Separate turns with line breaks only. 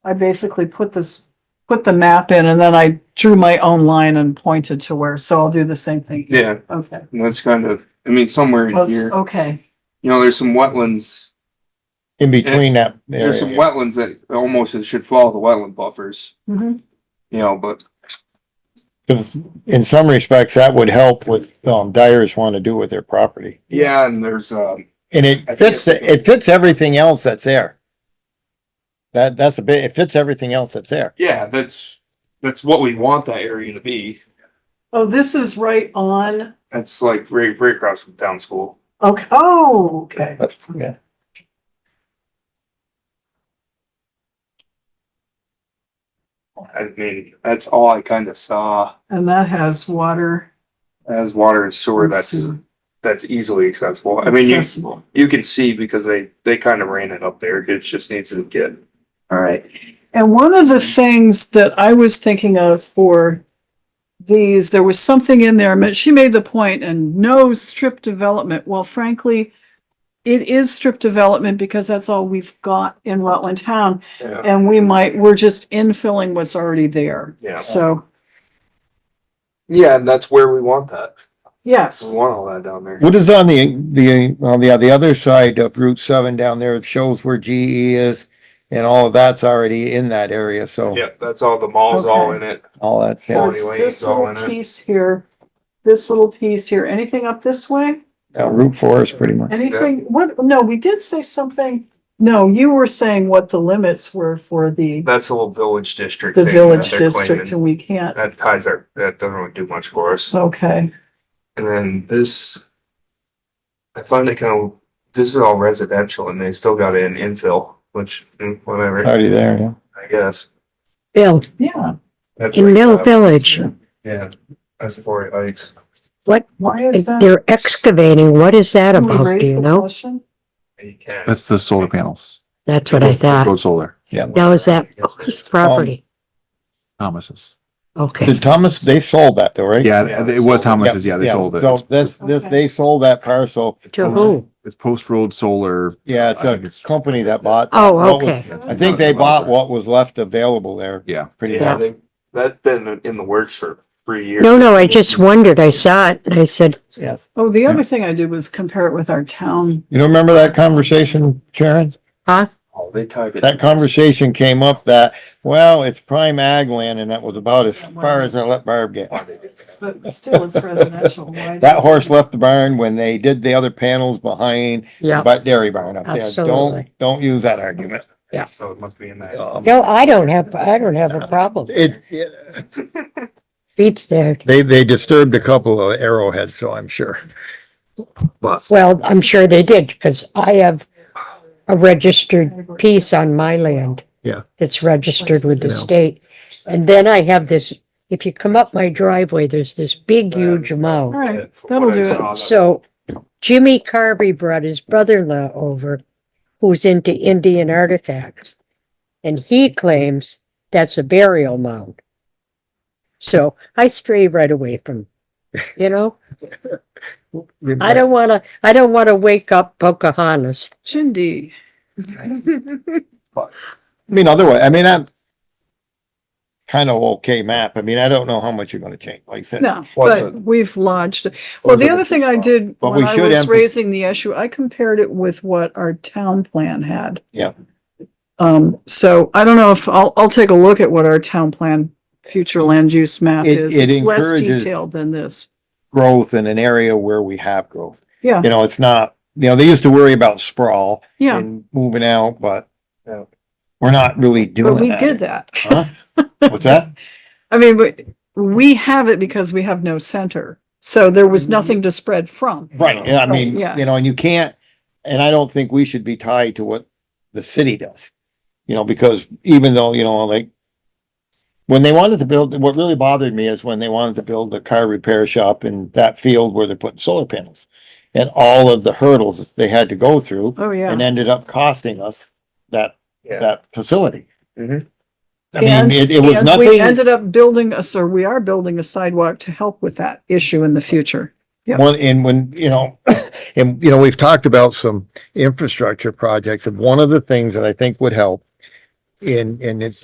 I basically put this, put the map in and then I drew my own line and pointed to where, so I'll do the same thing. here.
Yeah,
Okay,
and that's kind of, I mean, somewhere in
Well, it's-
here,
okay,
you know, there's some wetlands.
in between that area.
There's some wetlands that almost should follow the wetland buffers,
Mhm.
you know, but
'Cause in some respects, that would help what, um, dyers want to do with their property.
yeah, and there's, um,
And it
I think
fits,
it's-
it fits everything else that's there. That, that's a bit, it fits everything else that's there.
yeah, that's, that's what we want that area to be.
oh, this is right on,
That's like right, right across from town school.
okay, oh, okay.
But, yeah.
I mean, that's all I kind of saw
And that has water.
as water and sewer.
and
That's,
sewer
that's easily accessible. I mean, you,
accessible.
you can see because they, they kind of ran it up there. It just needs to get. All right.
And one of the things that I was thinking of for these, there was something in there, I mean, she made the point, and no strip development. Well, frankly, it is strip development because that's all we've got in Rutland Town,
Yeah.
and we might, we're just infilling what's already there.
Yeah.
So,
Yeah, and that's where we want that. We
yes,
want all that down there.
What is on the, the, on the, the other side of Route seven down there, it shows where GE is and all of that's already in that area, so
Yep, that's all, the mall's all in
Okay.
it.
all that's,
so
yeah,
it's
Anyway,
this
it's all in
little
it.
piece here, this little piece here, anything up this way?
uh, Route four is pretty much.
Anything, what, no, we did say something, no, you were saying what the limits were for the,
That's the whole village district.
the
thing that
village
they're
district
claiming.
and we can't,
That ties our, that doesn't really do much for us.
okay.
And then this. I find it kind of, this is all residential and they still got an infill, which, mm, whatever,
Already there, yeah.
I guess.
Bill,
Yeah,
That's
in
like
Mill
that.
Village,
Yeah, that's the Fort Heights.
why is that?
they're excavating. What is that
Can we
about?
raise
Do you
the
know?
question?
You can.
That's the solar panels.
That's what I thought.
Road solar,
Now is that whose property?
Thomas's.
Okay.
Did Thomas, they sold that though, right?
Yeah,
Yeah,
they
it was
sold it.
Thomas's. Yeah, they sold
So
it.
this, this,
Okay.
they sold that parcel.
To who?
It's Post Road Solar.
Yeah, it's
I
a
think it's-
company that bought.
Oh,
what
okay.
was- I think they bought what was left available there.
Yeah.
Pretty
Yeah,
much.
they, that's been in the works for three years.
No, no, I just wondered. I saw it and I said,
Yes.
Oh, the other thing I did was compare it with our town.
You don't remember that conversation, Sharon?
huh?
Oh, they tied it.
That conversation came up that, well, it's prime ag land and that was about as far as I let Barb get.
Why they did that.
But still, it's residential. Why-
That horse left the barn when they did the other panels behind,
Yeah.
but dairy barn up there. Don't,
Absolutely.
don't use that argument.
So it must be in that.
Um,
No, I don't have, I don't have a problem.
It, it-
Beats that.
They, they disturbed a couple of arrowheads, so I'm sure. But
Well, I'm sure they did because I have a registered piece on my land.
Yeah.
It's registered with the
Yeah.
state. And then I have this, if you come up my driveway, there's this big, huge
All
mound.
right,
From
that'll
what I
do
saw,
it.
that-
So Jimmy Carvey brought his brother-in-law over, who's into Indian artifacts. And he claims that's a burial mound. So I stray right away from, you know, I don't wanna, I don't wanna wake up Pocahontas.
Chindi.
I mean, otherwise, I mean, I'm kind of okay map. I mean, I don't know how much you're gonna change, like I said.
No,
What's
but
it?
we've lodged, well, the other thing I did
But
when
we
I
should
was
emphasis-
raising the issue, I compared it with what our town plan had.
Yeah.
Um, so I don't know if, I'll, I'll take a look at what our town plan, future land use map
It-
is.
it
It's less
encourages-
detailed than this.
Growth in an area where we have growth.
Yeah,
You know, it's not, you know, they used to worry about sprawl
yeah,
and moving out, but
Yeah.
we're not really doing
but
that. Uh-huh.
we did that.
Huh? What's that?
I mean, but we have it because we have no center. So there was
Mm-hmm.
nothing to spread from.
Right, yeah, I mean,
yeah.
you know, and you can't, and I don't think we should be tied to what the city does. You know, because even though, you know, like. When they wanted to build, what really bothered me is when they wanted to build the car repair shop in that field where they're putting solar panels. And all of the hurdles that they had to go through
Oh, yeah.
and ended up costing us that,
Yeah,
that facility.
Mhm.
I mean,
And-
it, it was
and We
nothing,
ended up building us, or we are building a sidewalk to help with that issue in the future. Yeah.
One, and when, you know, and, you know, we've talked about some infrastructure projects, and one of the things that I think would help and, and it's